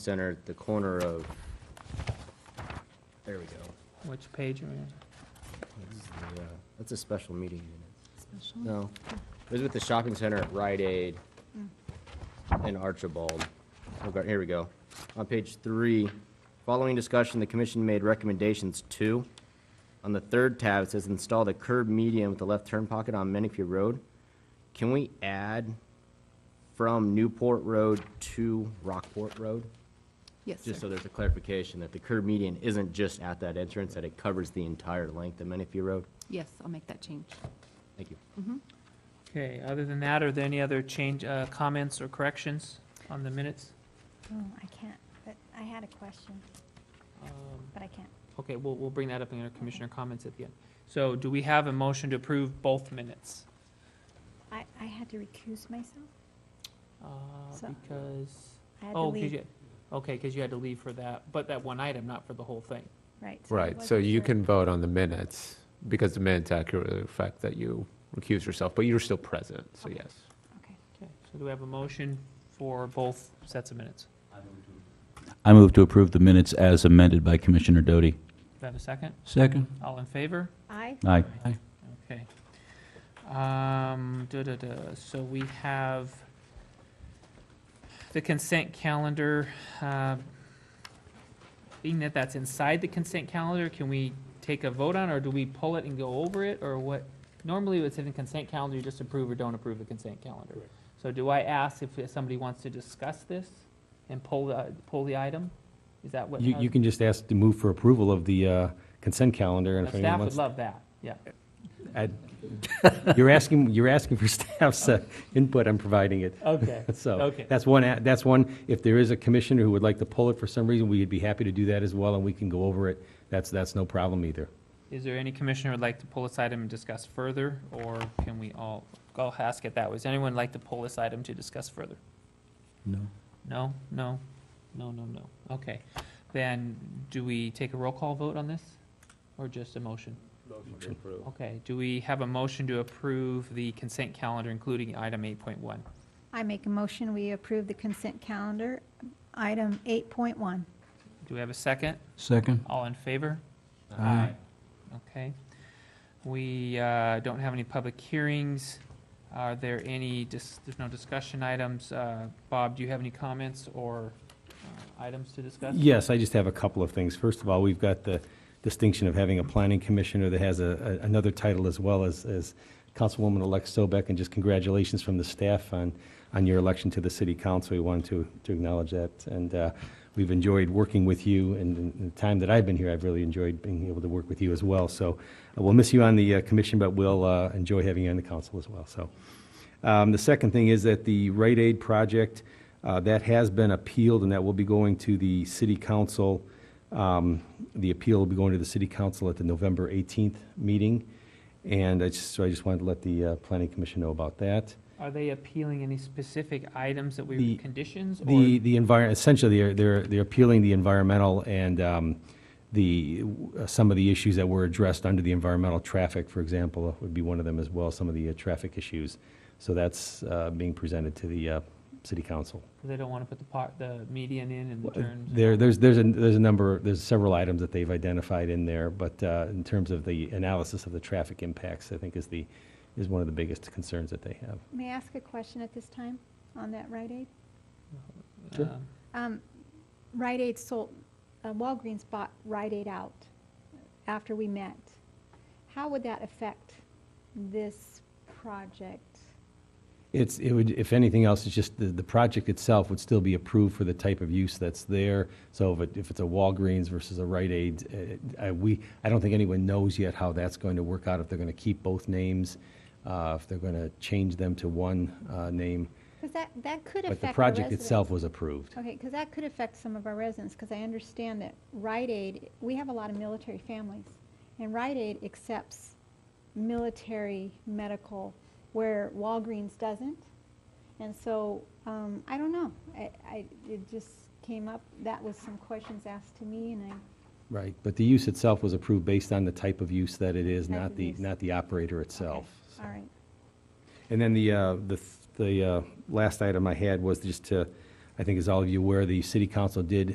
center at the corner of, there we go. Which page are we on? That's the, uh, That's a special meeting unit. No, it was with the shopping center at Rite Aid and Archibald. Oh, God, Here we go. On page three, following discussion, the commission made recommendations to, on the third tab, it says install the curb median with the left turn pocket on Menifee Road. Can we add from Newport Road to Rockport Road? Yes, Just so sir. there's a clarification that the curb median isn't just at that entrance, that it covers the entire length of Menifee Road. Yes, I'll make that change. Thank you. Okay, other than that, are there any other change, uh, comments or corrections on the minutes? Oh, I can't, but I had a question, Um, but I can't. Okay, we'll, we'll bring that up in our commissioner comments at the end. So do we have a motion to approve both minutes? I, I had to recuse myself. Uh, So- Because, I had to oh, 'cause leave. you, okay, because you had to leave for that, but that one item, not for the whole thing. Right. so I Right, so wasn't you sure. can vote on the minutes, because the minutes accurately reflect that you recused yourself, but you're still present, so yes. Okay. Okay, so do we have a motion for both sets of minutes? I move to approve the minutes as amended by Commissioner Doty. Do we have a second? Second. All in favor? I, Aye. Okay. Um, da-da-da, so we have the consent calendar. uh, Being that that's inside the consent calendar, can we take a vote on, it, or do we pull it and go over it, or what? Normally, it's in the consent calendar, you just approve or don't approve the consent calendar. So do I ask if somebody wants to discuss this and pull the, pull the item? Is that what? uh, You, you can just ask to move for approval of the uh, consent calendar, and The if anyone staff would wants. love that, yeah. I- You're asking, you're asking for staff's uh, input, I'm providing it. Okay, So, okay. that's one, a- that's one, if there is a commissioner who would like to pull it for some reason, we'd be happy to do that as well, and we can go over it. That's, that's no problem either. Is there any commissioner would like to pull this item and discuss further, or can we all, I'll ask it that way. Does anyone like to pull this item to discuss further? No. No, no, no, no, no. Okay. Then, do we take a roll call vote on this, or just a motion? Okay, do we have a motion to approve the consent calendar, including item eight point one? I make a motion, we approve the consent calendar, item 8.1. Do we have a second? Second. All in favor? Aye. Okay. We uh, don't have any public hearings. Are there any, dis- there's no discussion items. Uh, Bob, do you have any comments or uh, items to discuss? Yes, I just have a couple of things. First of all, we've got the distinction of having a planning commissioner that has a, a- another title as well as, as Councilwoman-elect Sobek, and just congratulations from the staff on, on your election to the city council. We wanted to, to acknowledge that, and uh, we've enjoyed working with you, and in the time that I've been here, I've really enjoyed being able to work with you as well. So uh, we'll miss you on the uh, commission, but we'll uh, enjoy having you on the council as well, so. Um, The second thing is that the Rite Aid project, uh, that has been appealed, and that will be going to the city council. um, The appeal will be going to the city council at the November 18th meeting, and I just, so I just wanted to let the uh, planning commission know about that. Are they appealing any specific items that we, The- conditions? or- The, the environment, essentially, they're- they're, they're appealing the environmental and um, the, uh, some of the issues that were addressed under the environmental traffic, for example, uh, would be one of them as well, some of the uh, traffic issues. So that's uh, being presented to the uh, city council. They don't want to put the part, the median in and the turns? and There, all? there's, there's, a there's a number, there's several items that they've identified in there, but uh, in terms of the analysis of the traffic impacts, I think is the, is one of the biggest concerns that they have. May I ask a question at this time on that Rite Aid? Sure. Um, Um, Rite Aid sold, uh, Walgreens bought Rite Aid out after we met. How would that affect this project? It's, it would, if anything else, it's just the, the project itself would still be approved for the type of use that's there. So if it, if it's a Walgreens versus a Rite Aid, uh, I, we, I don't think anyone knows yet how that's going to work out, if they're going to keep both names, uh, if they're going to change them to one uh, name. Because that, that could But affect our residents. the project itself was approved. Okay, because that could affect some of our residents, because I understand that Rite Aid, we have a lot of military families, and Rite Aid accepts military medical where Walgreens doesn't. And so, um, I don't know, I, I, it just came up, that was some questions asked to me, and I, Right, but the use itself was approved based on the type of use that it is, Type not of the, use. not the operator itself. all right. And then the, uh, the, th- the uh, last item I had was just to I think as all of you aware, the city council did